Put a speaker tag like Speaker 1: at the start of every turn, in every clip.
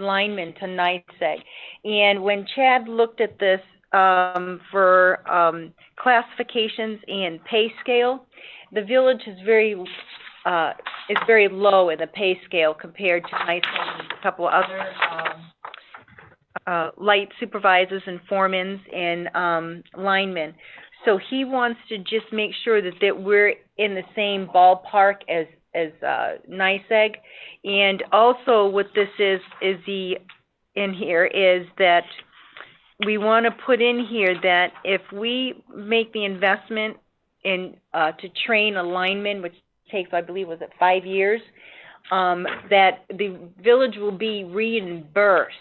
Speaker 1: lineman to NYSEG. And when Chad looked at this, um, for, um, classifications and pay scale, the village is very, uh, is very low in the pay scale compared to NYSEG and a couple other, um, uh, light supervisors and foremans and, um, linemen. So he wants to just make sure that, that we're in the same ballpark as, as, uh, NYSEG. And also what this is, is the, in here is that we wanna put in here that if we make the investment in, uh, to train a lineman, which takes, I believe, was it five years? Um, that the village will be reimbursed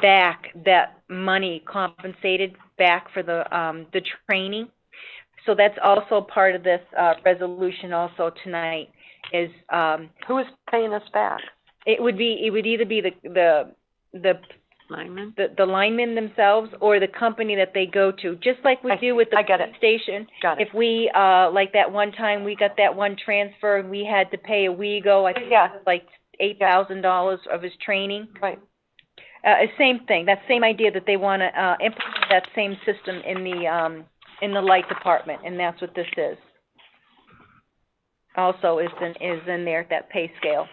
Speaker 1: back that money compensated back for the, um, the training. So that's also part of this, uh, resolution also tonight is, um,
Speaker 2: Who is paying us back?
Speaker 1: it would be, it would either be the, the, the,
Speaker 2: Lyman?
Speaker 1: the, the linemen themselves or the company that they go to, just like we
Speaker 2: I-
Speaker 1: do with the
Speaker 2: I get it.
Speaker 1: police station.
Speaker 2: Got it.
Speaker 1: If we, uh, like that one time, we got that one transfer and we had to pay a WEGO, I think it
Speaker 2: Yeah.
Speaker 1: was like eight thousand dollars of his training.
Speaker 2: Right.
Speaker 1: Uh, same thing, that same idea that they wanna, uh, implement that same system in the, um, in the light department, and that's what this is. Also is in, is in there, that pay scale.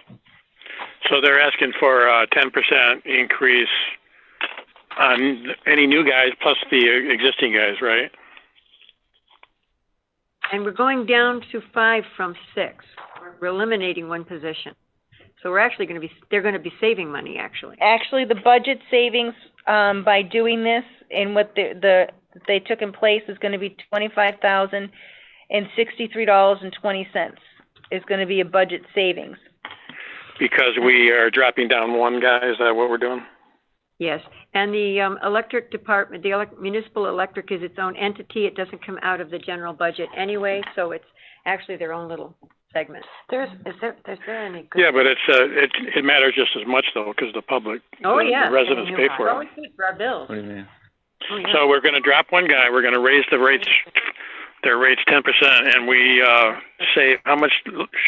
Speaker 3: So they're asking for a ten percent increase on any new guys plus the existing guys, right?
Speaker 2: And we're going down to five from six. We're eliminating one position. So we're actually gonna be, they're gonna be saving money, actually.
Speaker 1: Actually, the budget savings, um, by doing this and what the, the, they took in place is gonna be twenty-five thousand and sixty-three dollars and twenty cents is gonna be a budget savings.
Speaker 3: Because we are dropping down one guy, is that what we're doing?
Speaker 2: Yes. And the, um, electric department, the elec- municipal electric is its own entity. It doesn't come out of the general budget anyway, so it's actually their own little segment. There's, is there, is there any
Speaker 3: Yeah, but it's, uh, it, it matters just as much though, because the public,
Speaker 2: Oh,
Speaker 3: the- the
Speaker 2: yeah.
Speaker 3: residents pay
Speaker 2: It's
Speaker 3: for it.
Speaker 2: always good for our bills.
Speaker 4: What do you mean?
Speaker 2: Oh, yeah.
Speaker 3: So we're gonna drop one guy, we're gonna raise the rates, their rates ten percent, and we, uh, save, how much,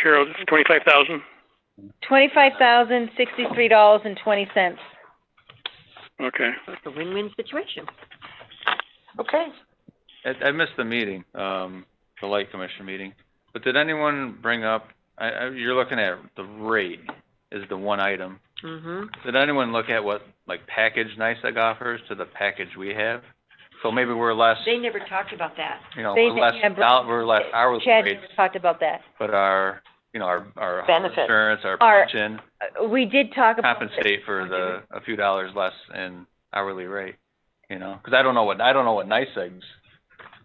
Speaker 3: Cheryl, twenty-five thousand?
Speaker 1: Twenty-five thousand sixty-three dollars and twenty cents.
Speaker 3: Okay.
Speaker 2: So It's a win-win situation.
Speaker 5: Okay.
Speaker 4: I, I missed the meeting, um, the light commission meeting, but did anyone bring up, I, I, you're looking at the rate is the one item.
Speaker 2: Mm-hmm.
Speaker 4: Did anyone look at what, like, package NICEAG offers to the package we have? So maybe we're less,
Speaker 2: They never talked about that.
Speaker 4: you know,
Speaker 1: They
Speaker 4: we're less,
Speaker 1: didn't have-
Speaker 4: doll- we're less hourly
Speaker 1: Chad
Speaker 4: rates,
Speaker 1: talked about that.
Speaker 4: but our, you know, our, our health
Speaker 5: Benefits.
Speaker 4: insurance, our
Speaker 1: Our-
Speaker 4: pension
Speaker 1: Uh, We did talk about it.
Speaker 4: compensate for the, a few dollars less in hourly rate, you know? 'Cause I don't know what, I don't know what NICEAG's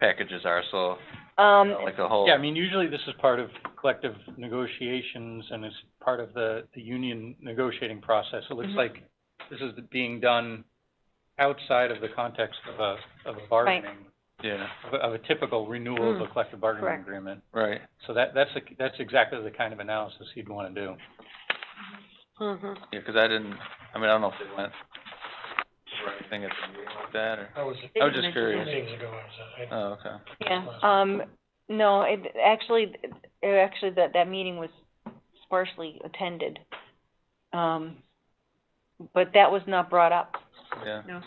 Speaker 4: packages are, so, you
Speaker 1: Um,
Speaker 4: know, like, the whole.
Speaker 6: Yeah, I mean, usually this is part of collective negotiations and is part of the, the union negotiating process. It looks
Speaker 1: Mhm.
Speaker 6: like this is being done outside of the context of a, of a bargaining,
Speaker 4: Yeah,
Speaker 6: of a, of a typical renewal of a collective bargaining
Speaker 2: correct.
Speaker 6: agreement.
Speaker 4: right.
Speaker 6: So that, that's, the- that's exactly the kind of analysis you'd wanna do.
Speaker 2: Mm-hmm.
Speaker 4: Yeah, 'cause I didn't, I mean, I don't know if they went over anything at the meeting like that, or,
Speaker 7: I was,
Speaker 4: I was just curious.
Speaker 7: meetings ago, I was,
Speaker 4: Oh, okay.
Speaker 1: yeah, um, no, it, actually, it, actually, that, that meeting was sparsely attended. Um, but that was not brought up.
Speaker 4: Yeah,
Speaker 2: No.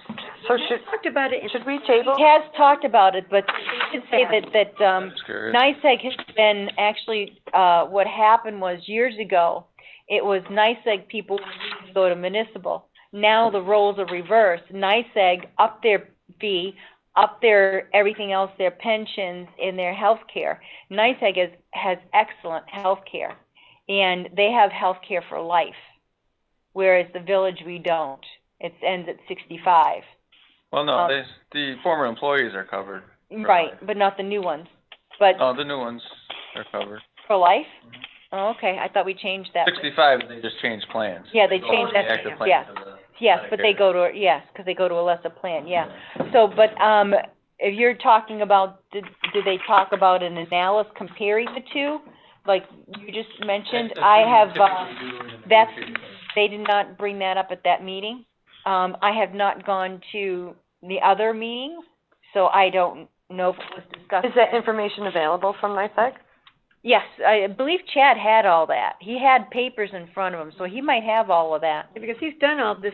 Speaker 5: So
Speaker 2: They
Speaker 5: should,
Speaker 2: Talked about it in
Speaker 5: should we table?
Speaker 1: Has talked about it, but they did say that, that, um,
Speaker 4: just curious.
Speaker 1: NICEAG has been, actually, uh, what happened was years ago, it was NICEAG people who would go to municipal. Now the roles are reversed. NICEAG up their fee, up their, everything else, their pensions and their health care. NICEAG has, has excellent health care, and they have health care for life, whereas the village, we don't. It ends at sixty-five.
Speaker 4: Well,
Speaker 1: um,
Speaker 4: no, they, the former employees are covered.
Speaker 1: Right, but not the new ones. But
Speaker 4: Oh, the new ones are covered.
Speaker 1: For life? Oh, okay, I thought we changed that.
Speaker 4: Sixty-five, they just changed plans.
Speaker 1: Yeah, they
Speaker 4: go
Speaker 1: changed
Speaker 4: from the
Speaker 2: that,
Speaker 4: active plan
Speaker 1: yeah.
Speaker 4: to the-
Speaker 1: Yes, but they go to, yes, 'cause they go to a lesser plan, yeah. So, but, um, if you're talking about, did, did they talk about an analysis comparing the two? Like you just mentioned,
Speaker 6: That's-
Speaker 1: I
Speaker 6: that's what you
Speaker 1: have, um,
Speaker 6: typically do in a
Speaker 1: that's-
Speaker 6: negotiating.
Speaker 1: they did not bring that up at that meeting. Um, I have not gone to the other meetings, so I don't know if it was discussed.
Speaker 5: Is that information available from NICEAG?
Speaker 1: Yes, I believe Chad had all that. He had papers in front of him, so he might have all of that.
Speaker 2: Because he's done all this